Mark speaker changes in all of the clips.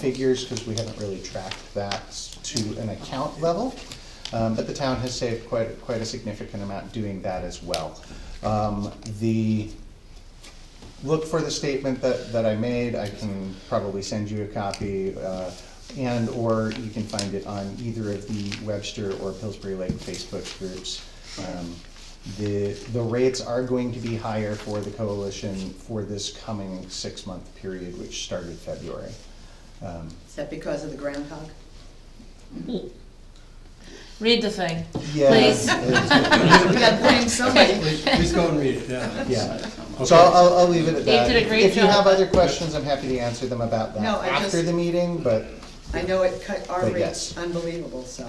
Speaker 1: figures, because we haven't really tracked that s- to an account level. Um, but the town has saved quite, quite a significant amount doing that as well. Um, the, look for the statement that, that I made, I can probably send you a copy, uh, and/or you can find it on either of the Webster or Pillsbury Lake Facebook groups. Um, The, the rates are going to be higher for the coalition for this coming six-month period, which started February. Um,
Speaker 2: Is that because of the groundhog?
Speaker 3: Read the thing.
Speaker 1: yeah,
Speaker 3: Please.
Speaker 1: it's-
Speaker 2: We gotta blame somebody.
Speaker 4: Please please go and read it, yeah. uh,
Speaker 1: Yeah,
Speaker 4: Okay.
Speaker 1: so I'll, I'll, I'll leave it at
Speaker 3: Dave
Speaker 1: that.
Speaker 3: did a great
Speaker 1: If you have
Speaker 3: job.
Speaker 1: other questions, I'm happy to answer them about that
Speaker 2: No, I
Speaker 1: after
Speaker 2: just-
Speaker 1: the meeting, but
Speaker 2: I know it cut our
Speaker 1: But
Speaker 2: rates
Speaker 1: yes.
Speaker 2: unbelievable, so.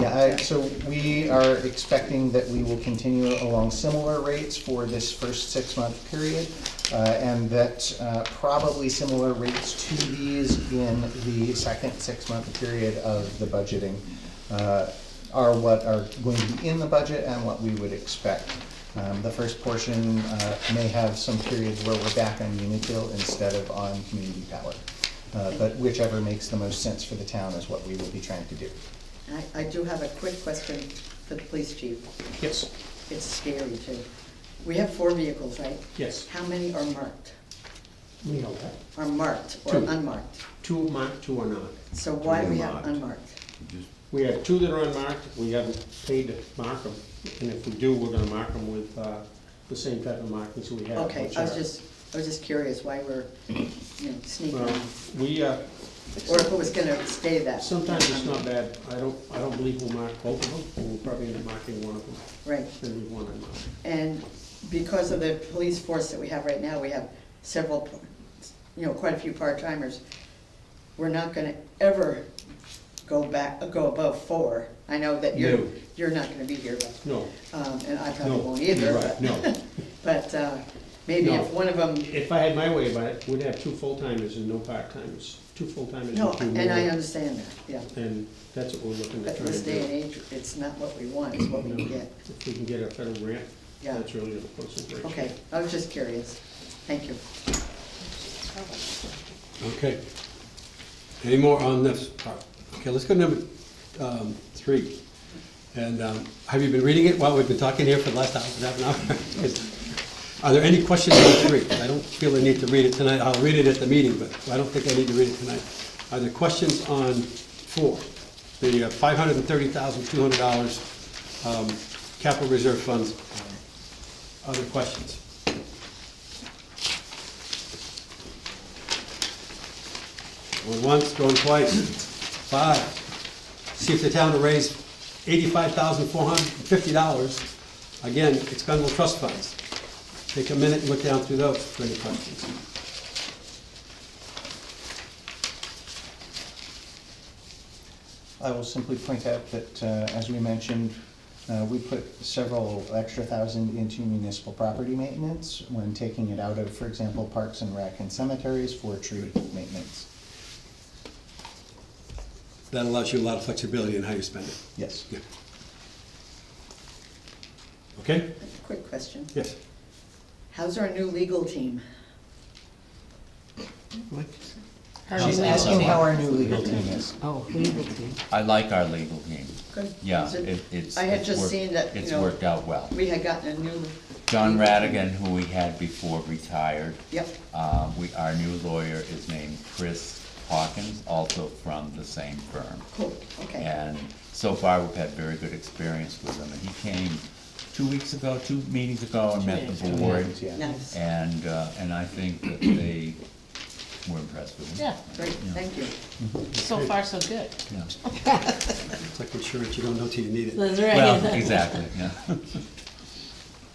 Speaker 1: Yeah, I- so we are expecting that we will continue along similar rates for this first six-month period, uh, and that uh, probably similar rates to these in the second six-month period of the budgeting uh, are what are going to be in the budget and what we would expect. Um, The first portion uh, may have some periods where we're back on Unitil instead of on community power. Uh, But whichever makes the most sense for the town is what we will be trying to do.
Speaker 2: I, I do have a quick question for the police chief.
Speaker 1: Yes.
Speaker 2: It's scary too. We have four vehicles, right?
Speaker 5: Yes,
Speaker 2: How many are marked?
Speaker 5: we know that.
Speaker 2: Are marked or
Speaker 5: Two.
Speaker 2: unmarked?
Speaker 5: Two marked, two are not.
Speaker 2: So why do we have
Speaker 6: Marked.
Speaker 2: unmarked?
Speaker 5: We have two that are unmarked, we haven't paid to mark them, and if we do, we're gonna mark them with, uh, the same type of markings we have.
Speaker 2: Okay,
Speaker 5: which
Speaker 2: I was
Speaker 5: are-
Speaker 2: just, I was just curious why we're, you know, sneaking,
Speaker 5: Well,
Speaker 2: or
Speaker 5: we, uh,
Speaker 2: if it was gonna stay that.
Speaker 5: sometimes it's not bad, I don't, I don't believe we'll mark both of them, we'll probably end up marking one of them,
Speaker 2: Right,
Speaker 5: then we want to mark.
Speaker 2: and because of the police force that we have right now, we have several, you know, quite a few part-timers. We're not gonna ever go back, go above four. I know that you're,
Speaker 5: No.
Speaker 2: you're not gonna be here, but,
Speaker 5: No,
Speaker 2: um, and I probably
Speaker 5: no,
Speaker 2: won't
Speaker 5: you're
Speaker 2: either,
Speaker 5: right,
Speaker 2: but,
Speaker 5: no.
Speaker 2: but, uh, maybe
Speaker 5: No.
Speaker 2: if one of them,
Speaker 5: If I had my way about it, we'd have two full-timers and no part-timers, two full-timers
Speaker 2: no,
Speaker 5: and two
Speaker 2: and I
Speaker 5: more,
Speaker 2: understand that, yeah.
Speaker 5: and that's what we're looking
Speaker 2: But
Speaker 5: at
Speaker 2: in
Speaker 5: trying
Speaker 2: this
Speaker 5: to
Speaker 2: day and
Speaker 5: do.
Speaker 2: age, it's not what we want, it's what we can
Speaker 5: No.
Speaker 2: get,
Speaker 5: If we can get a federal grant,
Speaker 2: yeah.
Speaker 5: that's really the concentration.
Speaker 2: Okay, I was just curious. Thank you.
Speaker 6: Okay. Any more on this part? Okay, let's go to number um, three. And um, have you been reading it while we've been talking here for the last half half an hour? 'Cause- Are there any questions on three? I don't feel the need to read it tonight. I'll read it at the meeting, but I don't think I need to read it tonight. Are there questions on four? The uh, five hundred and thirty thousand, two hundred dollars um, capital reserve funds. Other questions? Going once, going twice. Five, see if the town will raise eighty-five thousand four hundred and fifty dollars, again, expendable trust funds. Take a minute and look down through those for any questions.
Speaker 1: I will simply point out that, uh, as we mentioned, uh, we put several extra thousand into municipal property maintenance when taking it out of, for example, parks and rec and cemeteries for tree maintenance.
Speaker 6: That allows you a lot of flexibility in how you spend it.
Speaker 1: Yes.
Speaker 6: Yeah. Okay?
Speaker 2: Quick question.
Speaker 6: Yes.
Speaker 2: How's our new legal team?
Speaker 1: She's asking how our new legal team is.
Speaker 7: Oh, legal team.
Speaker 8: I like our legal team.
Speaker 2: Good.
Speaker 8: Yeah,
Speaker 2: Is it-
Speaker 8: it, it's.
Speaker 2: I had
Speaker 8: it's
Speaker 2: just
Speaker 8: worked-
Speaker 2: seen that, you
Speaker 8: It's
Speaker 2: know,
Speaker 8: worked out well.
Speaker 2: we had gotten a new.
Speaker 8: John Radigan, who we had before retired,
Speaker 2: Yep,
Speaker 8: uh, we, our new lawyer is named Chris Hawkins, also from the same firm.
Speaker 2: cool, okay.
Speaker 8: And so far, we've had very good experience with him. And he came two weeks ago, two meetings ago, and met the board.
Speaker 1: Yeah.
Speaker 2: Nice,
Speaker 8: And, uh, and I think that they were impressed with him.
Speaker 3: Yeah,
Speaker 2: great, thank you.
Speaker 3: so far so good.
Speaker 8: Yeah.
Speaker 6: It's like insurance, you don't know till you need it.
Speaker 3: That's right.
Speaker 8: Well, exactly, yeah.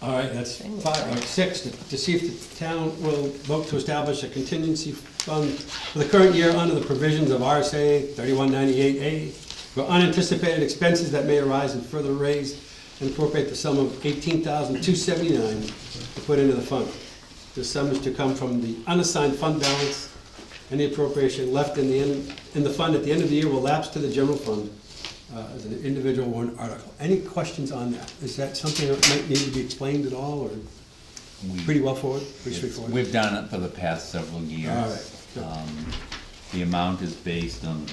Speaker 6: All right, that's
Speaker 3: Thing.
Speaker 6: five, all right, six, to to see if the town will vote to establish a contingency fund for the current year under the provisions of RSA thirty-one ninety-eight A for unanticipated expenses that may arise and further raise and appropriate the sum of eighteen thousand two seventy-nine to put into the fund. The sum is to come from the unassigned fund balance. Any appropriation left in the end, in the fund at the end of the year will lapse to the general fund uh, as an individual warrant article. Any questions on that? Is that something that might need to be explained at all, or
Speaker 8: We-
Speaker 6: pretty well forward, pretty
Speaker 8: It's-
Speaker 6: straightforward?
Speaker 8: We've done it for the past several years.
Speaker 6: All right, good.
Speaker 8: Um, The amount is based on the